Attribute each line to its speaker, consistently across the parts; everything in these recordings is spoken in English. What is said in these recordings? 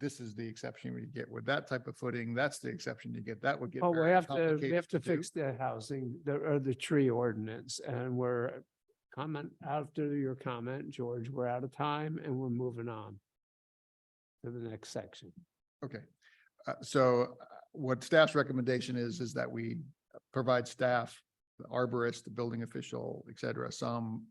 Speaker 1: this is the exception we get with that type of footing, that's the exception you get, that would get.
Speaker 2: Well, Oh, we
Speaker 1: very
Speaker 2: have to, we
Speaker 1: complicated
Speaker 2: have to
Speaker 1: do.
Speaker 2: fix the housing, the, or the tree ordinance, and we're comment, after your comment, George, we're out of time and we're moving on to the next section.
Speaker 1: Okay, uh, so uh, what staff's recommendation is, is that we provide staff, the arborist, the building official, et cetera, some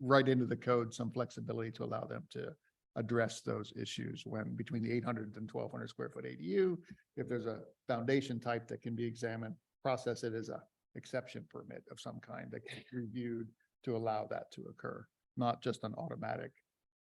Speaker 1: right into the code, some flexibility to allow them to address those issues when between the 800 and 1200 square foot ADU. If there's a foundation type that can be examined, process it as a exception permit of some kind that can be reviewed to allow that to occur, not just an automatic,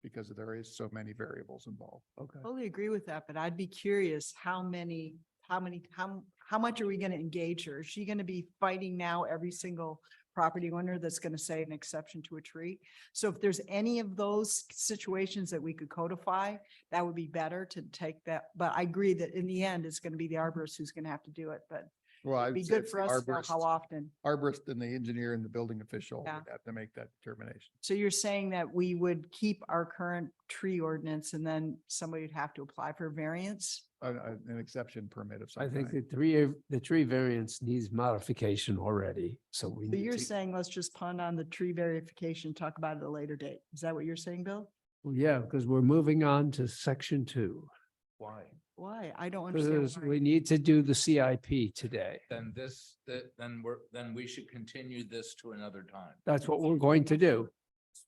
Speaker 1: because there is so many variables involved.
Speaker 2: Okay.
Speaker 3: Totally agree with that, but I'd be curious how many, how many, how, how much are we going to engage her? Is she going to be fighting now every single property owner that's going to say an exception to a tree? So if there's any of those situations that we could codify, that would be better to take that. But I agree that in the end, it's going to be the arborist who's going to have to do it, but
Speaker 1: Well, I
Speaker 3: it'd be
Speaker 1: would say
Speaker 3: good
Speaker 1: it's
Speaker 3: for us to know
Speaker 1: arborist.
Speaker 3: how often.
Speaker 1: arborist and the engineer and the building official would
Speaker 3: Yeah.
Speaker 1: have to make that determination.
Speaker 3: So you're saying that we would keep our current tree ordinance and then somebody would have to apply for variance?
Speaker 1: A- a- uh, An exception permit of
Speaker 2: I
Speaker 1: some
Speaker 2: think the
Speaker 1: kind.
Speaker 2: three, the tree variance needs modification already, so we
Speaker 3: So
Speaker 2: need
Speaker 3: you're
Speaker 2: to.
Speaker 3: saying let's just punt on the tree verification, talk about it at a later date. Is that what you're saying, Bill?
Speaker 2: Well, Yeah, because we're moving on to section two.
Speaker 4: Why?
Speaker 3: Why? I don't
Speaker 2: Because
Speaker 3: understand.
Speaker 2: we
Speaker 3: why.
Speaker 2: need to do the CIP today.
Speaker 4: Then this, that, then we're, then we should continue this to another time.
Speaker 2: That's what we're going to do.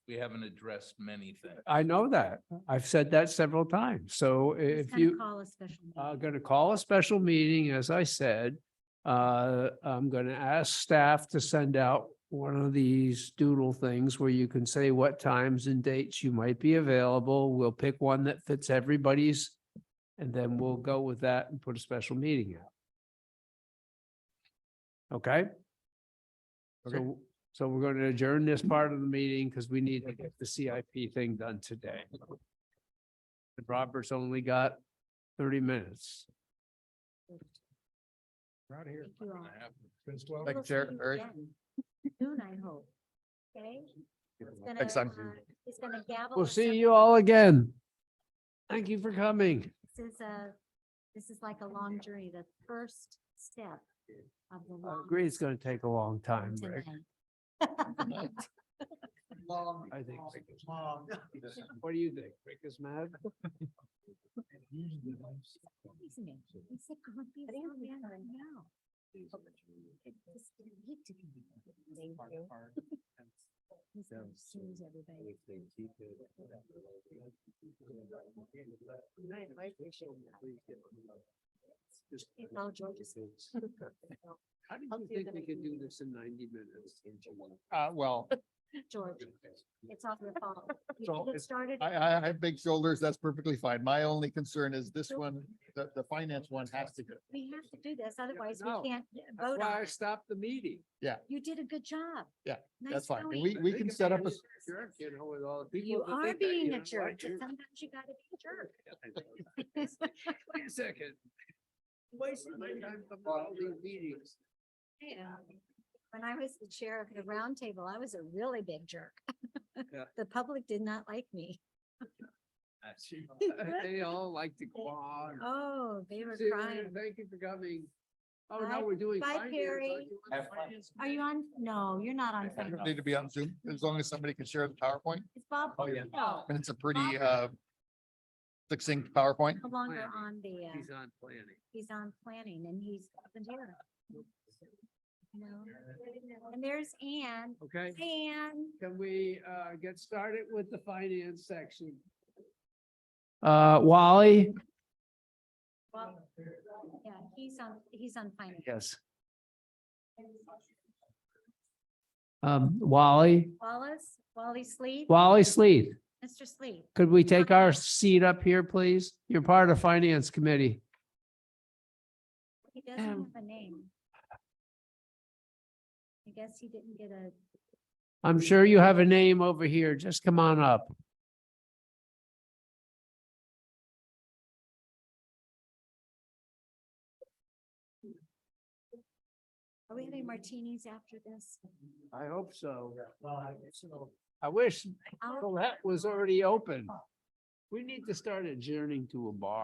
Speaker 4: We haven't addressed many things.
Speaker 2: I know that. I've said that several times. So
Speaker 5: Just
Speaker 2: if
Speaker 5: kinda
Speaker 2: you.
Speaker 5: Call a special meeting.
Speaker 2: I'm going to uh, call a special meeting, as I said. Uh, I'm going to ask staff to send out one of these doodle things where you can say what times and dates you might be available. We'll pick one that fits everybody's. And then we'll go with that and put a special meeting out. Okay?
Speaker 1: Okay.
Speaker 2: So, so we're going to adjourn this part of the meeting because we need to get the CIP thing done today. And Robert's only got thirty minutes.
Speaker 1: Right here.
Speaker 5: Thank you all.
Speaker 1: Thank you,
Speaker 5: We'll see
Speaker 1: Chair.
Speaker 5: you
Speaker 1: Eric?
Speaker 5: again Soon, I hope. Okay? It's
Speaker 1: Next
Speaker 5: gonna,
Speaker 1: time.
Speaker 5: uh, It's gonna gavel.
Speaker 2: We'll
Speaker 5: us
Speaker 2: see
Speaker 5: up.
Speaker 2: you all again. Thank you for coming.
Speaker 5: This is a, this is like a long journey, the first step of the
Speaker 2: I
Speaker 5: long.
Speaker 2: agree, it's gonna take a long Uh, time,
Speaker 5: journey
Speaker 2: Rick.
Speaker 5: tonight.
Speaker 3: Long,
Speaker 2: I think-
Speaker 3: long.
Speaker 2: What do you think? Rick is mad?
Speaker 5: Excuse me. He said, "Come on, be so young now." It just didn't need to be. He's gonna choose everybody. It's all George's.
Speaker 2: How do
Speaker 5: I'll
Speaker 2: you
Speaker 5: see
Speaker 2: think
Speaker 5: them
Speaker 2: we
Speaker 5: at
Speaker 2: could do
Speaker 5: noon.
Speaker 2: this in ninety minutes?
Speaker 1: Uh, well,
Speaker 5: George, it's all your fault.
Speaker 1: So
Speaker 5: You get
Speaker 1: it's-
Speaker 5: started.
Speaker 1: I, I I have big shoulders. That's perfectly fine. My only concern is this one, the, the finance one has to go.
Speaker 5: We have to do this, otherwise
Speaker 2: no.
Speaker 5: we can't
Speaker 2: That's
Speaker 5: vote
Speaker 2: why
Speaker 5: on
Speaker 2: I
Speaker 5: it.
Speaker 2: stopped the meeting.
Speaker 5: You did a good job.
Speaker 1: Yeah,
Speaker 5: Nice
Speaker 1: That's fine.
Speaker 5: going.
Speaker 1: And we, we
Speaker 2: They
Speaker 1: can
Speaker 2: be
Speaker 1: set up
Speaker 2: a
Speaker 1: a,
Speaker 2: little jerk, You know, with all the people.
Speaker 5: You
Speaker 2: that
Speaker 5: are
Speaker 2: think that, you
Speaker 5: being
Speaker 2: know
Speaker 5: a
Speaker 2: what,
Speaker 5: jerk, but
Speaker 2: you're-
Speaker 5: sometimes you gotta be a jerk.
Speaker 2: Wait a second. I'm from all these meetings.
Speaker 5: Yeah. When I was the chair of the round table, I was a really big jerk.
Speaker 2: Yeah.
Speaker 5: The public did not like me.
Speaker 2: They all like to go on.
Speaker 5: Oh, they were
Speaker 2: See you later.
Speaker 5: crying.
Speaker 2: Thank you for coming. Oh,
Speaker 5: Bye.
Speaker 2: now we're doing.
Speaker 5: Bye,
Speaker 2: finance.
Speaker 5: Perry.
Speaker 2: Are you on
Speaker 4: Have fun.
Speaker 2: finance
Speaker 5: Are you on? No, you're not on.
Speaker 1: I don't
Speaker 5: Facebook.
Speaker 1: need to be on Zoom as long as somebody can share the PowerPoint.
Speaker 5: Is Bob?
Speaker 2: Oh, yeah.
Speaker 5: No,
Speaker 1: And it's a pretty, uh, succinct PowerPoint.
Speaker 5: no longer
Speaker 2: Planning.
Speaker 5: on the,
Speaker 2: committee? He's
Speaker 5: uh,
Speaker 2: on planning.
Speaker 5: he's on planning and he's up in here. No. And there's Anne.
Speaker 2: Okay,
Speaker 5: Anne.
Speaker 2: can we uh get started with the finance section? Uh, Wally?
Speaker 5: Well, yeah, he's on, he's on finance.
Speaker 2: Yes. Um, Wally,
Speaker 5: Wallace, Wally Sleep,
Speaker 2: Wally Sleeth,
Speaker 5: Mr. Sleep.
Speaker 2: could we take our seat up here, please? You're part of Finance Committee.
Speaker 5: He doesn't have a name. I guess he didn't get a,
Speaker 2: I'm sure you have a name over here. Just come on up.
Speaker 5: are we having martinis after this?
Speaker 2: I hope so. I wish
Speaker 5: I'll-
Speaker 2: Colette was already open. We need to start adjourning to a bar.